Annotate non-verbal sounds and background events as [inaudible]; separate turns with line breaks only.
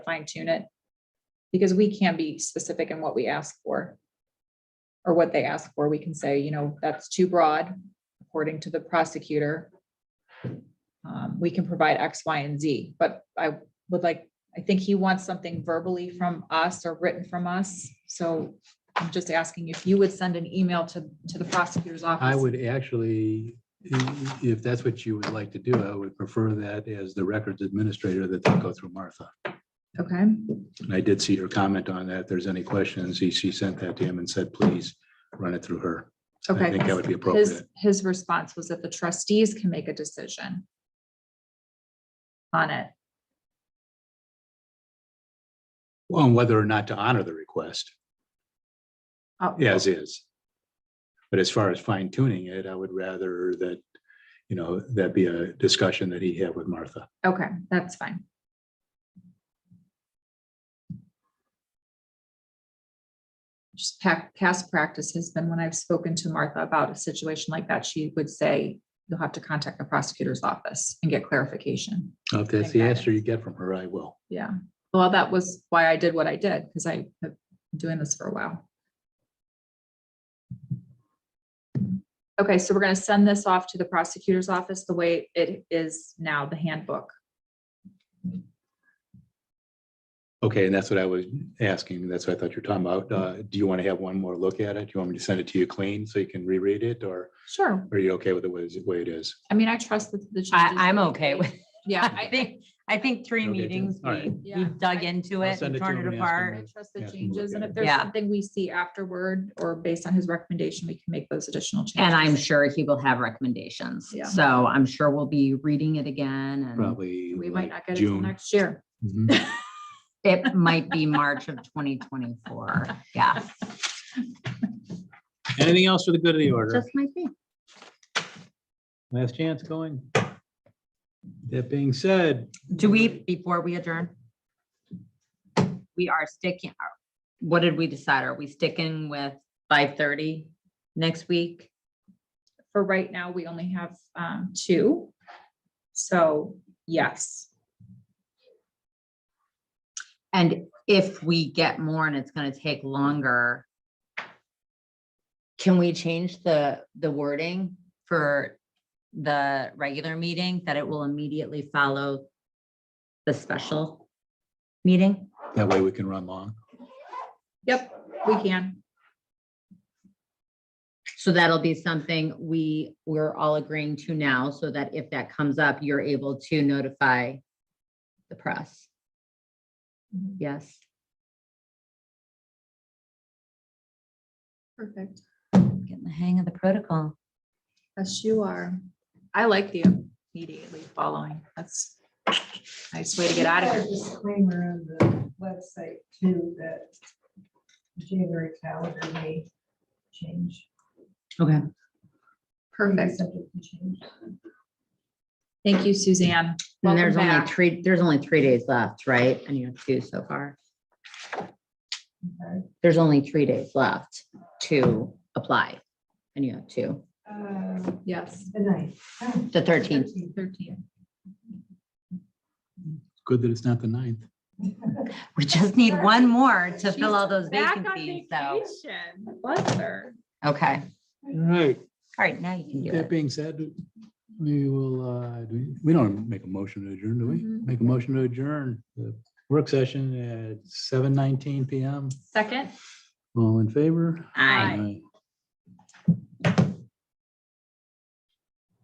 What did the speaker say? fine tune it. Because we can be specific in what we ask for. Or what they ask for. We can say, you know, that's too broad, according to the prosecutor. Um, we can provide X, Y, and Z, but I would like, I think he wants something verbally from us or written from us. So I'm just asking if you would send an email to, to the prosecutor's office.
I would actually, i- if that's what you would like to do, I would prefer that as the records administrator that they go through Martha.
Okay,
And I did see your comment on that. If there's any questions, he- she sent that to him and said, please run it through her. I think that
okay.
would be
His,
appropriate.
his response was that the trustees can make a decision. On it.
On whether or not to honor the request,
Oh,
as is. But as far as fine tuning it, I would rather that, you know, that be a discussion that he have with Martha.
Okay, that's fine. Just pa- past practice has been when I've spoken to Martha about a situation like that, she would say, you'll have to contact the prosecutor's office and get clarification.
If that's the answer you get from her, I will.
Yeah, well, that was why I did what I did, because I've been doing this for a while. Okay, so we're gonna send this off to the prosecutor's office the way it is now, the handbook.
Okay, and that's what I was asking. That's what I thought you were talking about. Uh, Do you want to have one more look at it? Do you want me to send it to you clean so you can reread it or
Sure,
are you okay with the way the way it is?
I mean, I trust that the.
I,
trustees-
I'm okay with,
[laughs] Yeah,
I
I,
think, I think three
Okay, Jim.
meetings,
All right.
we,
Yeah.
we dug into
I'll
it
send
and
it to
torn
him
it
and ask him
I
apart.
trust the
Yeah, I can
changes,
look
and
at
if
it.
there's
Yeah.
something we see afterward or based on his recommendation, we can make those additional changes.
And I'm sure he will have recommendations.
Yeah.
So I'm sure we'll be reading it again and
Probably.
Mm-hmm. We might not
like
get it till
June.
next year. [laughs]
Mhm.
it might be March of
[laughs]
twenty twenty-four. Yeah.
Anything else for the good of the order?
Just might be.
Last chance going. That being said,
Do we, before we adjourn? We are sticking, what did we decide? Are we sticking with five thirty next week?
For right now, we only have, um, two. So, yes,
And if we get more and it's gonna take longer, can we change the, the wording for the regular meeting that it will immediately follow the special meeting?
that way we can run long.
yep, we can.
So that'll be something we, we're all agreeing to now, so that if that comes up, you're able to notify the press. Yes.
Perfect.
Getting the hang of the protocol.
Yes, you are. I like the immediately following. That's a nice way to get out of here.
Put a Disclaimer on the website too, that January calendar may change.
Okay.
Perfect.
Subject to change.
Thank you, Suzanne.
And there's
Welcome
only
back.
three, there's only three days left, right? And you have two so far.
Okay.
There's only three days left to apply. And you have two,
Uh,
Yes,
The ninth. Oh,
the thirteenth.
thirteen.
Good that it's not the ninth.
[laughs] We just need one more to fill all those
Back on
vacancies, so,
vacation. Bless her.
okay.
All right,
All right, now you can do
that
it.
being said, we will, uh, do we- we don't make a motion to adjourn, do we?
Mhm.
Make a motion to adjourn the work session at seven nineteen PM.
Second?
All in favor?
Aye.
Aye.